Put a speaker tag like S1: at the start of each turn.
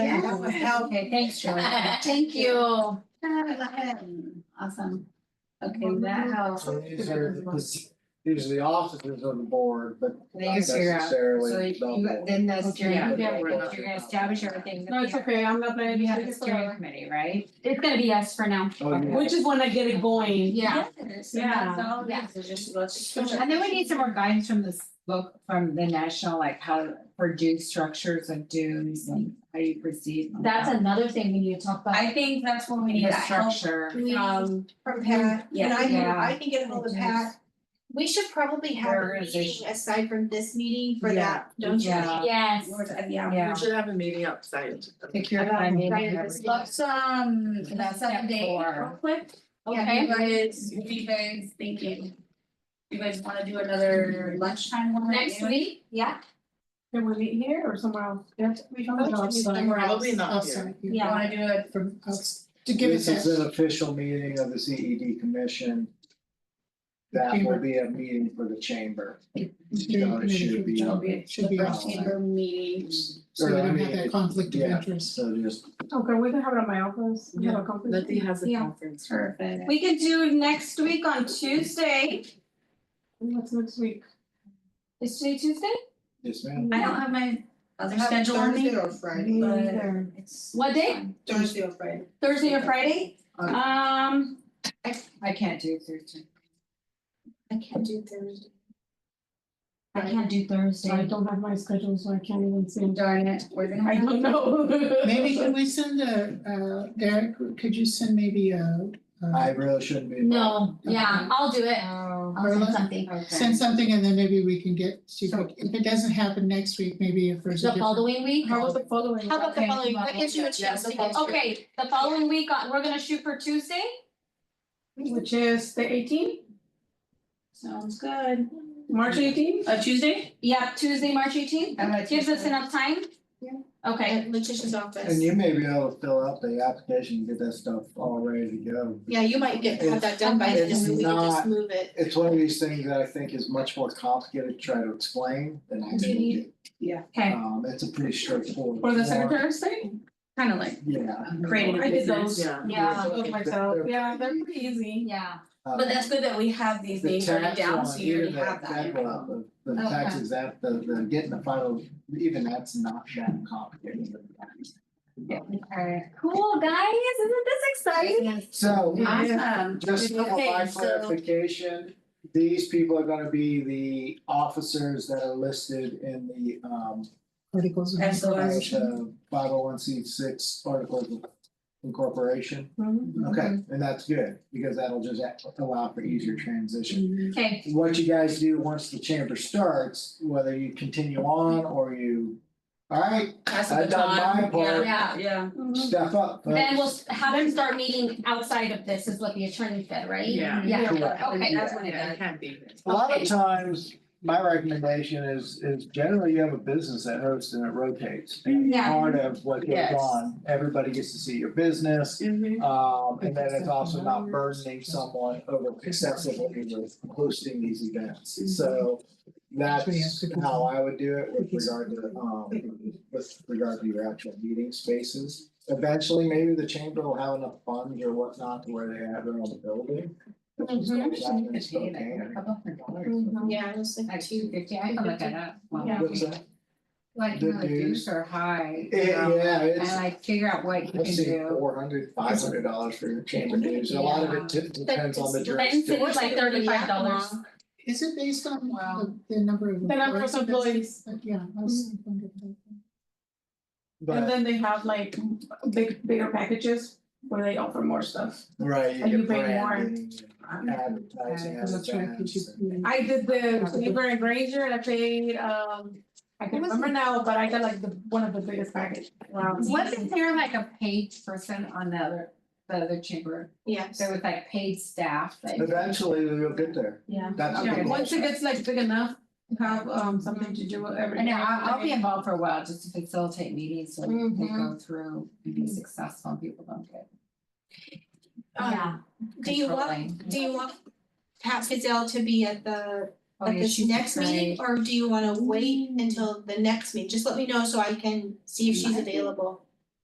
S1: help.
S2: Okay, thanks, Joy. Thank you. Awesome. Okay, that helps.
S3: So these are, the- these are the officers of the board, but not
S2: There's your, uh, So
S3: necessarily.
S2: you, then that's your,
S4: Yeah.
S2: you're
S3: Yeah.
S2: gonna establish everything.
S4: No, it's okay, I'm not gonna
S2: You
S4: be
S2: have the
S4: happy
S2: steering
S4: for,
S2: committee, right?
S5: It's gonna be us for now.
S3: Oh,
S4: which is when I get it going.
S5: Yeah.
S2: Yes, and
S4: Yeah.
S2: that's all it is, it's just let's-
S4: Yeah.
S2: And then we need some more guidance from this book, from the national, like how for due structures of dues and how you proceed.
S5: That's another thing we need to talk about.
S1: I think that's when we need
S2: The
S1: that help Um,
S2: structure.
S1: from
S6: from Pat, and I can,
S2: Um, Yeah.
S6: I can get ahold of Pat. We should probably have a
S2: Organization.
S6: meeting aside from this meeting for
S2: Yeah.
S6: that, don't you?
S2: Yeah.
S1: uh,
S6: think?
S5: Yes.
S6: Yeah.
S2: Yeah.
S7: We should have a meeting outside.
S2: Pick your
S6: About
S2: funding.
S6: Brian
S2: and
S6: Christie.
S1: Let's um,
S2: That's
S1: set a
S2: step
S1: date
S2: four.
S1: real quick.
S5: Okay.
S1: You guys, what do you guys thinking? You guys wanna do another lunchtime one?
S5: Next week, yeah,
S4: Can we meet here or somewhere else? We
S7: Oh,
S1: Somewhere else,
S7: Probably not here.
S1: you wanna do it
S4: From outs-
S3: to give This is an official meeting of the CED commission. That will be a meeting for the chamber. So it should be.
S8: Should be our
S3: Oh.
S8: chamber meetings, so
S3: Or,
S8: we
S3: I
S8: don't have
S3: mean,
S8: that conflict of
S3: yeah.
S8: interest.
S3: So just,
S4: Okay, we can have it at my office. We have a conference.
S7: Letty has a
S5: Yeah.
S7: conference.
S1: perfect.
S5: we could do next week on Tuesday.
S4: What's next week?
S5: Is today Tuesday?
S3: yes, ma'am.
S5: Mm.
S1: I don't have my other
S6: Have
S1: schedule on me.
S6: Thursday or Friday,
S1: But it's.
S5: What day?
S1: fine.
S6: Thursday or Friday.
S5: Thursday or Friday?
S3: Okay.
S5: Um,
S2: I can't do Thursday.
S6: I can't do Thursday.
S5: I can't do
S4: I
S5: Thursday.
S4: don't have my schedule, so I can't even see.
S1: Darn it, we're gonna.
S4: I
S1: have-
S4: don't know.
S8: Maybe can we send a, uh, Eric, could you send maybe a,
S3: I
S8: uh,
S3: really shouldn't be. involved.
S5: No, yeah, I'll do it.
S2: Oh,
S5: I'll send
S8: Carla?
S5: something.
S8: send something and then maybe we can get, see if
S2: So-
S8: it- if it doesn't happen next week, maybe if there's a
S5: The
S8: different.
S5: following week?
S4: How about the following?
S6: How about the
S2: Okay,
S6: following,
S2: well,
S6: that gives you a chance to get.
S5: Okay, the following week, uh, we're gonna shoot for Tuesday?
S4: Which is the eighteenth,
S1: Sounds good.
S4: March eighteenth?
S1: Uh, Tuesday?
S5: Yeah, Tuesday, March eighteenth.
S2: I'm gonna
S5: Gives us
S2: Tuesday.
S5: enough time?
S6: Yeah.
S5: Okay,
S6: At Letitia's office.
S3: And you may be able to fill out the application, and get that stuff all ready to go.
S6: Yeah, you might get, have that done by
S3: It's-
S6: then, and we can
S3: it's not-
S6: just move it.
S3: It's one of these things that I think is much more complicated to try to explain than I
S5: Do you
S3: think. it-
S5: okay.
S3: Um, it's a pretty straightforward.
S4: For the
S3: form.
S4: Secretary of State?
S1: Kinda like
S3: Yeah.
S1: creating a
S4: I did
S1: business.
S4: those.
S7: Yeah.
S5: Yeah,
S4: Those myself, yeah, they're pretty easy.
S5: yeah.
S3: Uh,
S1: But that's good that we have these
S3: The
S1: things written
S3: tax
S1: down,
S3: on
S1: so you
S3: even
S1: already
S3: that,
S1: have that.
S3: that,
S1: in
S3: well,
S1: your-
S3: the, the
S5: Okay.
S3: taxes that, the, the getting the final, even that's not that complicated.
S2: Okay.
S5: Cool, guys, isn't this exciting?
S3: So,
S1: Awesome.
S3: just for
S1: Okay,
S3: my
S1: so
S3: clarification, these people are gonna be the officers that are listed in the, um,
S8: Articles. of
S1: That's the
S3: uh,
S1: last-
S3: the five oh one C six articles of incorporation.
S4: Mhm.
S8: Mm-hmm.
S3: Okay, and that's good, because that'll just act- allow for easier transition.
S5: Okay,
S8: Mm-hmm.
S3: What you guys do once the chamber starts, whether you continue on or you, all right,
S1: pass the
S3: I've done my
S1: baton,
S3: part.
S1: yeah, Uh, yeah.
S3: step up.
S5: then we'll
S3: folks.
S5: s- have them start meeting outside of this, is what the attorney said, right?
S7: Yeah.
S5: Yeah,
S3: Correct.
S5: okay, that's
S3: Yeah.
S5: what it
S7: Yeah,
S5: is.
S7: I can't be here.
S3: A lot of times, my recommendation is, is generally you have a business that hosts and it rotates. And
S5: Yeah.
S3: Part of what goes
S7: Yes.
S3: on, everybody gets to see your business,
S1: Mm-hmm.
S3: um, and then it's also not burdening someone over excessively with hosting these events. So that's how I would do it with regard to, um, with regard to your actual meeting spaces. Eventually, maybe the chamber will have enough funds or whatnot to where they have their own building.
S2: A couple hundred dollars.
S4: Mhm.
S6: Yeah, just like.
S2: Like two fifty, I can look that up.
S4: Yeah.
S3: What's that?
S2: Like,
S3: The
S2: no, the dues
S3: dues.
S2: are high.
S3: It- yeah,
S2: And
S3: it's,
S2: like figure out what you
S3: I've
S2: can
S3: seen
S2: do.
S3: four hundred, five hundred dollars for your chamber dues, and a lot of it de- depends on the
S6: But
S5: Then
S3: jurisdiction.
S5: it's like thirty-five dollars.
S8: Is it based on
S4: Wow.
S8: the, the number of?
S4: The number of employees. Mm.
S8: But, Yeah, I was wondering.
S4: And
S3: But,
S4: then they have like big, bigger packages where they offer more stuff.
S3: right,
S4: and
S3: you
S4: you
S3: get
S4: pay more.
S3: branding, advertising,
S2: Okay,
S3: as
S8: That's right, 'cause you- you-
S4: I did the Weaver and Granger and I paid, um, I can remember now, but I got like the, one of the biggest package. Wow.
S2: Wasn't there like a paid person on the other, the other chamber?
S6: Yes.
S2: There was like paid staff that.
S3: Eventually, we'll get there.
S2: Yeah.
S3: That's the
S4: Yeah,
S3: goal.
S4: once it gets like big enough, to have, um, something to do with everything.
S2: And I'll, I'll be involved for a while just to facilitate meetings so they go through and be successful and people don't get
S6: Um,
S5: Yeah.
S6: Do you want,
S2: controlling.
S6: do you want Pat Fidel to be at the
S2: Oh,
S6: at
S2: yeah,
S6: this
S2: she's
S6: next meeting, or do you wanna wait until the next meeting? Just let me know so I can see if she's available.